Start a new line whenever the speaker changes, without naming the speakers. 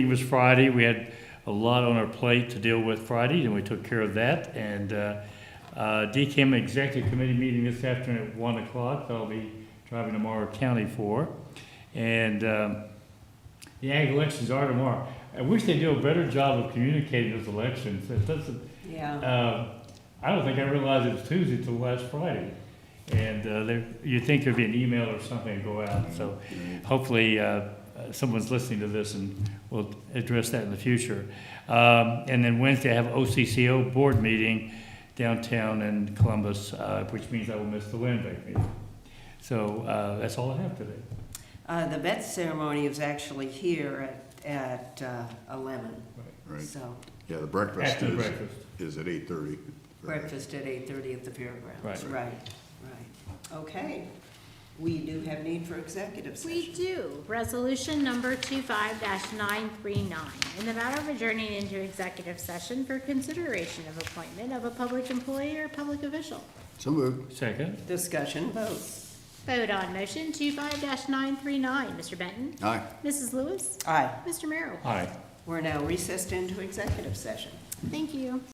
It was Friday, we had a lot on our plate to deal with Friday, and we took care of that. And uh, uh, DCAM Executive Committee meeting this afternoon at 1 o'clock, that I'll be driving to Morrow County for. And um, the ag elections are tomorrow. I wish they'd do a better job of communicating those elections. It doesn't,
Yeah,
uh, I don't think I realized it was Tuesday till last Friday. And uh, there, you'd think there'd be an email or something to go out, so hopefully uh, uh, someone's listening to this and will address that in the future. Um, And then Wednesday, I have OCCO board meeting downtown in Columbus, uh, which means I will miss the land bank meeting. So uh, that's all I have today.
uh, the vet ceremony is actually here at, at uh, eleven,
Right,
so
yeah, the breakfast
After the
is,
breakfast.
is at eight thirty.
breakfast at eight thirty at the fairgrounds,
Right.
right, right. Okay, we do have need for executive
We
session.
do. Resolution number 25-939, in the matter of adjourning into executive session for consideration of appointment of a public employee or public official.
So moved.
Second?
Discussion vote.
Vote on motion 25-939. Mr. Benton?
Aye.
Mrs. Lewis?
Aye,
Mr. Merrill?
Aye.
we're now recessed into executive session.
Thank you.